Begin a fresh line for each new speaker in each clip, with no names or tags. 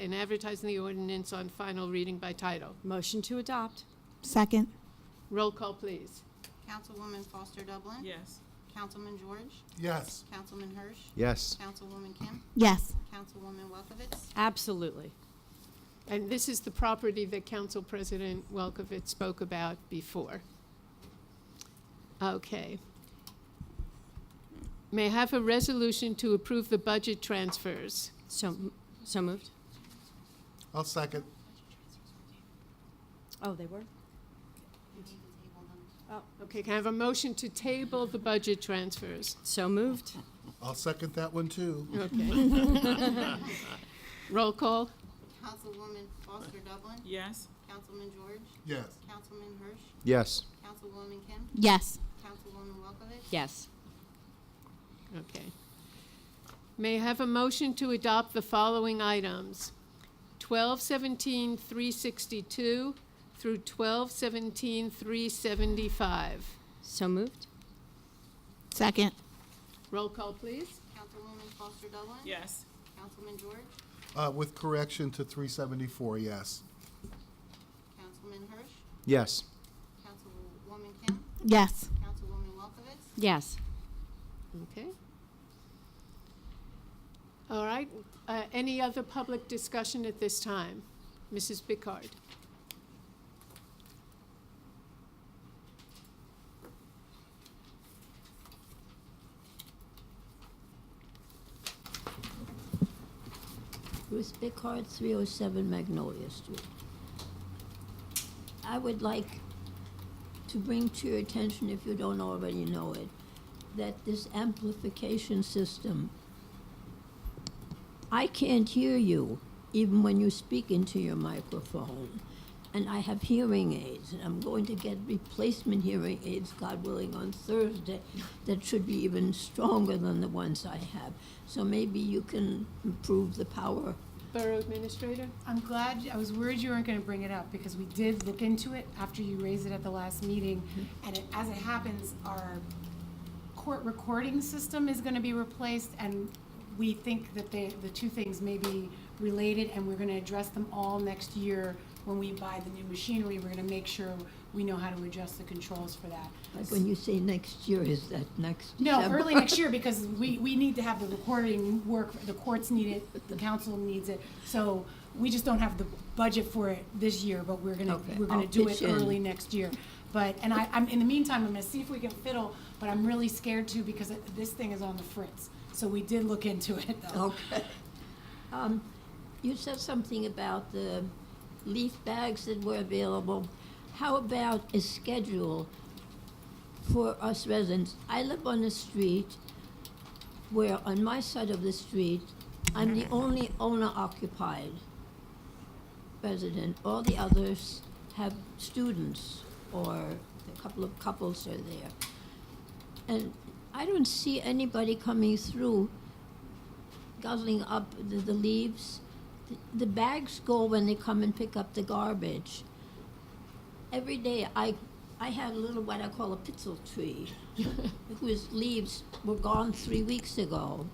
and advertising the ordinance on final reading by title.
Motion to adopt.
Second.
Roll call, please.
Councilwoman Foster Dublin.
yes,
Councilman George.
yes,
Councilman Hirsch.
yes,
Councilwoman Kim.
Yes.
Councilwoman Welkowitz.
Absolutely.
And this is the property that Council President Welkowitz spoke about before. Okay. May I have a resolution to approve the budget transfers?
So, so moved.
I'll second,
Oh, they were? Oh,
Okay, can I have a motion to table the budget transfers?
so moved.
I'll second that one too.
Okay. Roll call?
Councilwoman Foster Dublin.
yes,
Councilman George.
Yes,
Councilman Hirsch.
yes,
Councilwoman Kim.
Yes.
Councilwoman Welkowitz.
Yes.
Okay. May I have a motion to adopt the following items? 1217-362 through 1217-375.
So moved.
Second.
Roll call, please.
Councilwoman Foster Dublin.
yes,
Councilman George.
uh, with correction to three seventy-four, yes.
Councilman Hirsch.
yes,
Councilwoman Kim.
Yes.
Councilwoman Welkowitz.
Yes.
Okay. All right, uh, any other public discussion at this time? Mrs. Bickard?
Ruth Bickard, 307 Magnolia Street. I would like to bring to your attention, if you don't already know it, that this amplification system, I can't hear you even when you speak into your microphone. And I have hearing aids, and I'm going to get replacement hearing aids, God willing, on Thursday that should be even stronger than the ones I have. So maybe you can improve the power
Borough Administrator?
I'm glad, I was worried you weren't gonna bring it up, because we did look into it after you raised it at the last meeting. And it, as it happens, our court recording system is gonna be replaced, and we think that they, the two things may be related, and we're gonna address them all next year when we buy the new machinery, we're gonna make sure we know how to adjust the controls for that.
Like when you say next year, is that next
No,
December?
early next year, because we, we need to have the recording work, the courts need it, the council needs it. So we just don't have the budget for it this year, but we're gonna,
Okay,
we're gonna
I'll
do it
pitch in.
early next year. But, and I, I'm, in the meantime, I'm gonna see if we can fiddle, but I'm really scared too, because it- this thing is on the fritz. So we did look into it though.
Okay. Um, you said something about the leaf bags that were available. How about a schedule for us residents? I live on a street where on my side of the street, I'm the only owner occupied resident. All the others have students or a couple of couples are there. And I don't see anybody coming through guzzling up the, the leaves. The, the bags go when they come and pick up the garbage. Every day, I, I had a little what I call a pitzel tree, whose leaves were gone three weeks ago.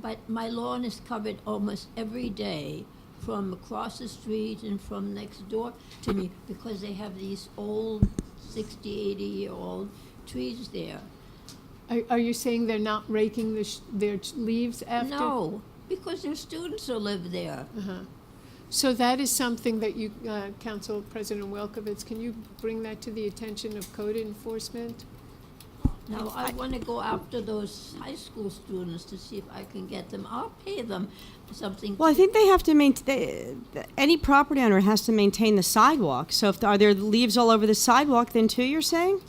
But my lawn is covered almost every day from across the street and from next door to me because they have these old 60, 80 year old trees there.
Are are you saying they're not raking the sh- their leaves after?
No, because their students who live there.
So that is something that you, uh, Council President Welkowitz, can you bring that to the attention of code enforcement?
Now, I want to go after those high school students to see if I can get them. I'll pay them something.
Well, I
to-
think they have to maintain, any property owner has to maintain the sidewalk. So if, are there leaves all over the sidewalk then too, you're saying?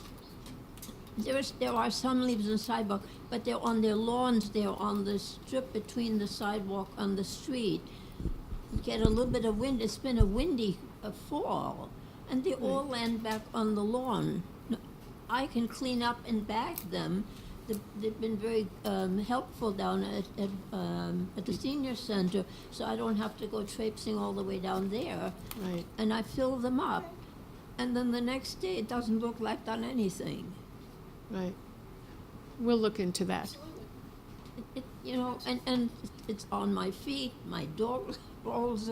There's, there are some leaves on the sidewalk, but they're on their lawns, they're on the strip between the sidewalk and the street. You get a little bit of wind, it's been a windy uh, fall, and they all land back on the lawn. No, I can clean up and bag them. They've, they've been very um, helpful down at, at, um, at the senior center, so I don't have to go traipsing all the way down there.
Right.
And I fill them up, and then the next day it doesn't look like done anything.
Right. We'll look into that.
it, you know, and, and it's on my feet, my dog rolls